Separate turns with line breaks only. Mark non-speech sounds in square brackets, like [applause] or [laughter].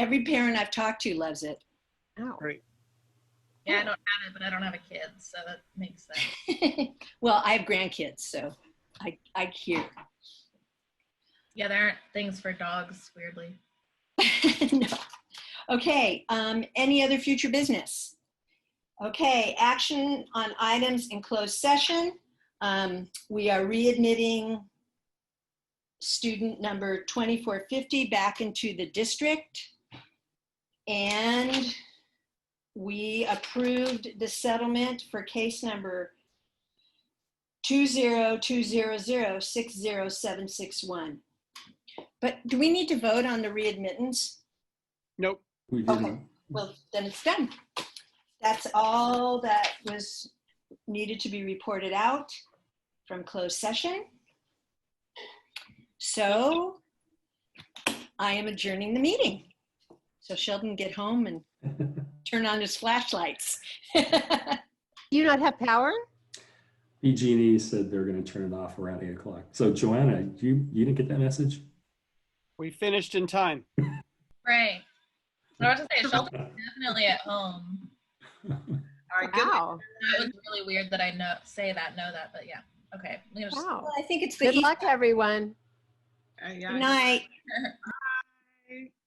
Every parent I've talked to loves it. [laughs]
Yeah, I don't have it, but I don't have a kid, so that makes sense.
well, I have grandkids, so I, I hear.
Yeah, there aren't things for dogs, weirdly.
[laughs] No. Okay, um, any other future business? Okay, action on items in closed session. Um, we are readmitting student number 2450 back into the district. And we approved the settlement for case number 20200607661. But do we need to vote on the readmittance?
Nope.
We
Okay.
didn't.
Well, then it's done. That's all that was needed to be reported out from closed session. So I am adjourning the meeting. So Sheldon get home and turn on his flashlights. [laughs]
Do you not have power?
PG&E E said they're going to turn it off around eight o'clock. So Joanna, you, you didn't get that message?
We finished in time.
Right. I was to say, Shelton's definitely at home.
All right, good.
Wow.
That was really weird that I know say that, know that, but yeah. Okay. I'm gonna just-
Wow.
Well, I think it's the
Good
East
luck, everyone.
Uh, yeah, I-
night.